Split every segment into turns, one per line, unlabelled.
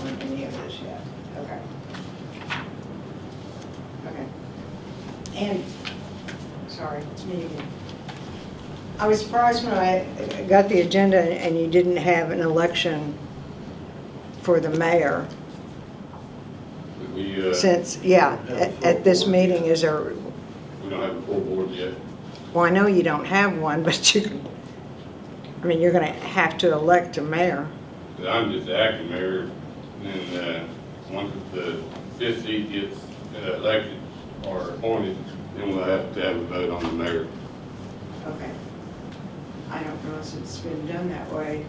on any of this yet, okay. Okay. And, sorry, it's me again. I was surprised when I got the agenda and you didn't have an election for the mayor,
We, uh,
since, yeah, at- at this meeting, is there,
we don't have a full board yet.
well, I know you don't have one, but you, I mean, you're gonna have to elect a mayor.
I'm just the acting mayor, and, uh, once the fifth seat gets uh, elected or appointed, then we'll have to have a vote on the mayor.
Okay. I don't know if it's been done that way.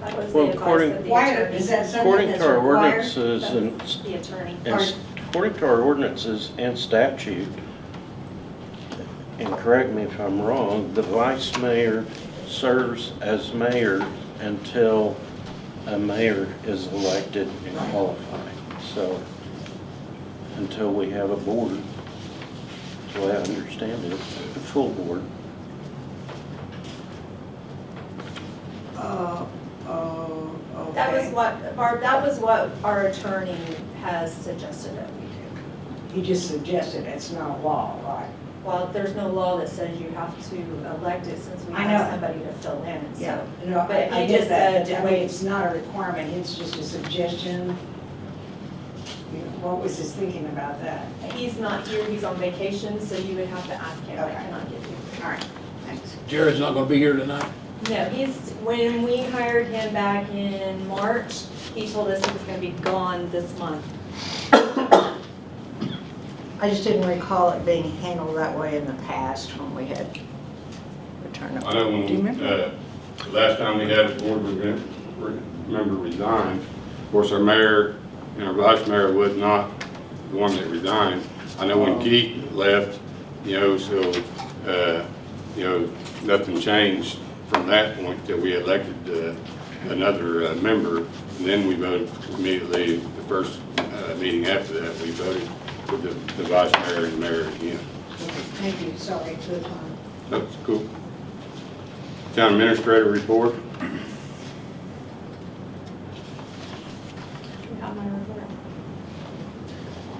That was the
Well,
advice
according-
of the
Why, is
attorney.
that something
According
that's
to our
required?
ordinances and,
That's The attorney.
and- according to our ordinances and statute, and correct me if I'm wrong, the vice mayor serves as mayor until a mayor is elected and qualified. So, until we have a board, so I understand it, a full board.
Oh, oh, okay.
That was what, Barb, that was what our attorney has suggested that we do.
He just suggested it's not law, right?
Well, there's no law that says you have to elect it since we
I
have
know.
somebody to fill in, so.
No,
But
I, I
he
get
just
that,
said-
but I mean, it's not a requirement, it's just a suggestion. You know, What was his thinking about that?
He's not here, he's on vacation, so you would have to ask him, I
Okay.
cannot give you.
All right, thanks.
Jared's not gonna be here tonight.
No, he's, when we hired him back in March, he told us he was gonna be gone this month.
I just didn't recall it being handled that way in the past when we had return of.
I know
Do you
when,
remember?
uh, the last time we had a board re- re- member resign, of course, our mayor and our vice mayor was not the one that resigned. I know
Oh.
when Keith left, you know, so, uh, you know, nothing changed from that point that we elected uh, another uh, member. And then we voted immediately, the first uh, meeting after that, we voted for the the vice mayor and mayor again.
Thank you, sorry for the time.
That's cool. Town administrator report?
Do you have my report?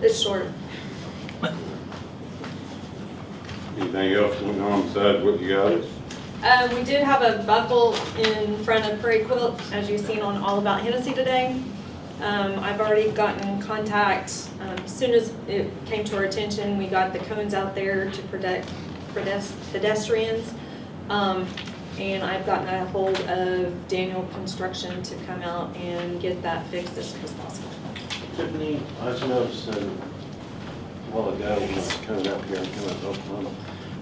It's short.
Anything else going on besides what you got?
Um, we did have a buckle in front of Prairie Quilt, as you've seen on All About Hennessy today. Um, I've already gotten contact, um, as soon as it came to our attention, we got the cones out there to protect pedes- pedestrians. Um, and I've gotten a hold of Daniel Construction to come out and get that fixed as soon as possible.
Tiffany, I was noticing a while ago when I was coming up here, and coming up Oklahoma,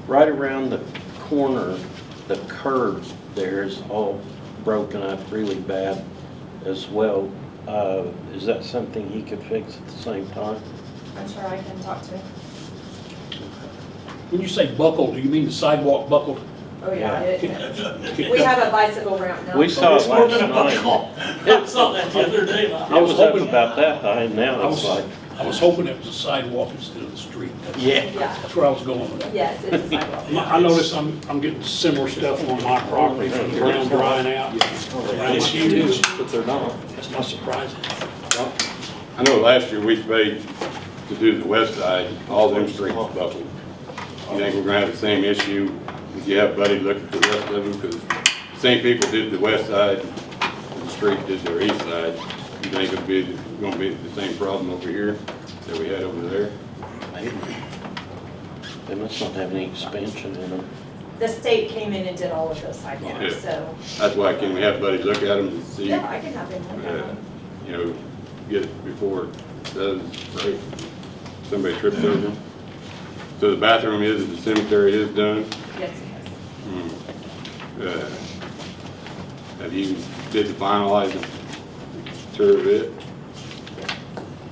right around the corner, the curb there is all broken up really bad as well. Uh, Is that something he could fix at the same time?
I'm sure I can talk to him.
When you say buckled, do you mean the sidewalk buckled?
Oh,
yeah,
We have a bicycle ramp now.
We saw it
It's more
last
than a
night.
buckle. I saw that the other day.
It was up about that high, and
I
now it's
was,
like,
I was hoping it was a sidewalk instead of the street. That's-
yeah.
Yeah,
That's where I was going with that.
yes, it's a sidewalk.
My- I notice I'm, I'm getting similar stuff on my property from the ground drying out. Around my shoes.
but they're not.
That's not surprising.
I know last year we paid to do the west side, all them streets buckled. You think we're gonna have the same issue if you have Buddy look at the rest of them? Because same people did the west side, the street did their east side. You think it'll be, gonna be the same problem over here that we had over there?
They must not have any expansion in them.
The state came in and did all of those sidewalks,
Yeah.
so,
That's why can we have Buddy look at them and see?
yeah, I can have him look at
uh,
them.
you know, get it before those, right? Somebody trips over them. So the bathroom is, the cemetery is done.
Yes, yes.
Hmm. Uh, Have you, did the finalize the tour of it?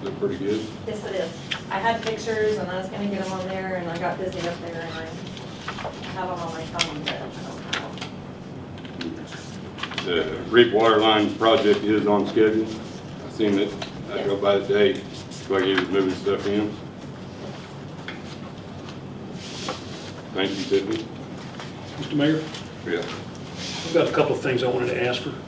Look pretty good.
Yes, it is. I had pictures and I was gonna get them on there and I got busy up there and I have them on my phone, but I don't have them.
The Reap Water Line project is on schedule. I seen it, I drove by today, like he was moving stuff in. Thank you, Tiffany.
Mr. Mayor,
Yeah.
I've got a couple of things I wanted to ask her.